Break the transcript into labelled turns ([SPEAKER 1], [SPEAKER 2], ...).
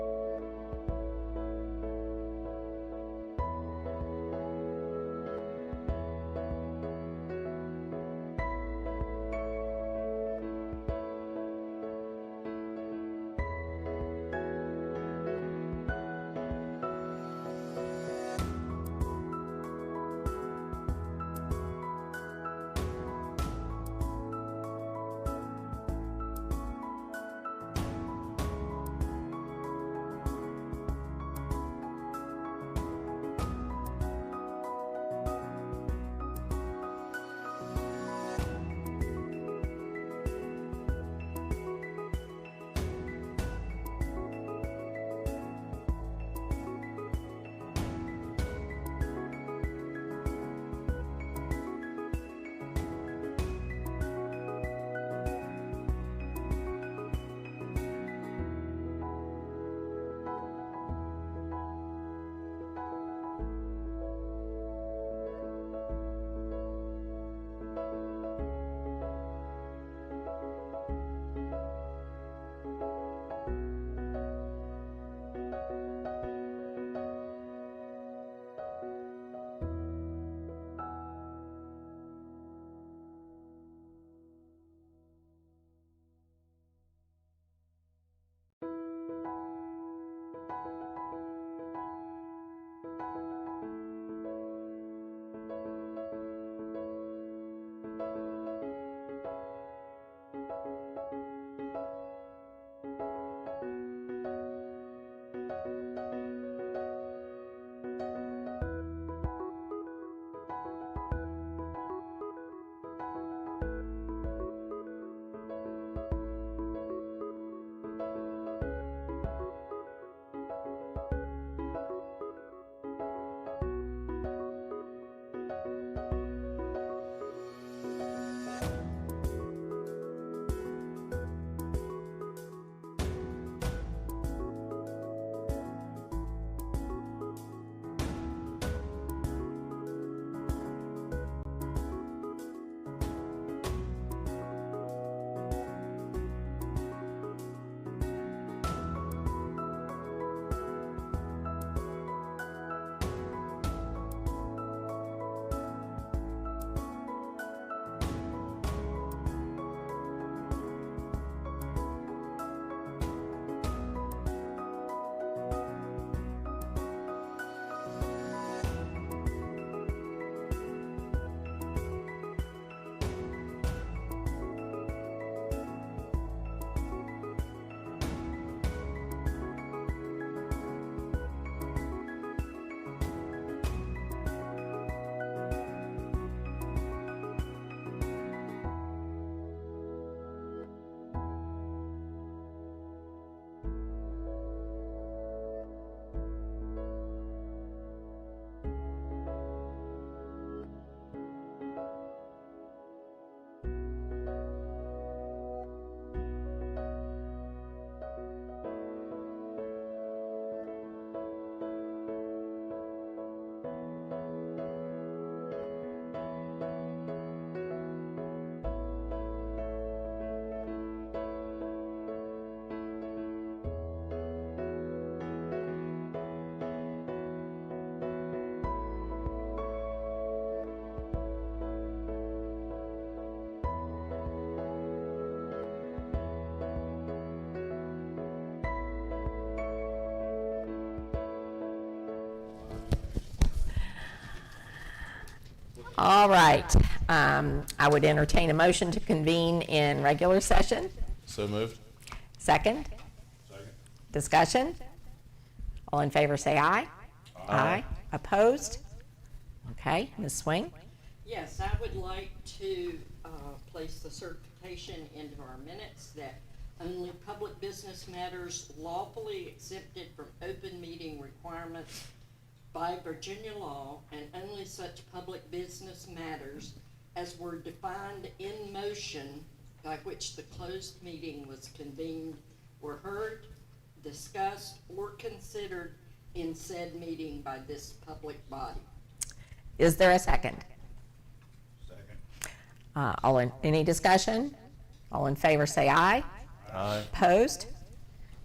[SPEAKER 1] All right, um, I would entertain a motion to convene in regular session.
[SPEAKER 2] So moved.
[SPEAKER 1] Second? Discussion? All in favor, say aye. Aye. Opposed? Okay, Ms. Swing?
[SPEAKER 3] Yes, I would like to uh, place the certification into our minutes that only public business matters lawfully exempted from open meeting requirements by Virginia law and only such public business matters as were defined in motion by which the closed meeting was convened were heard, discussed, or considered in said meeting by this public body.
[SPEAKER 1] Is there a second? Second. Uh, all in, any discussion? All in favor, say aye.
[SPEAKER 2] Aye.
[SPEAKER 1] Opposed?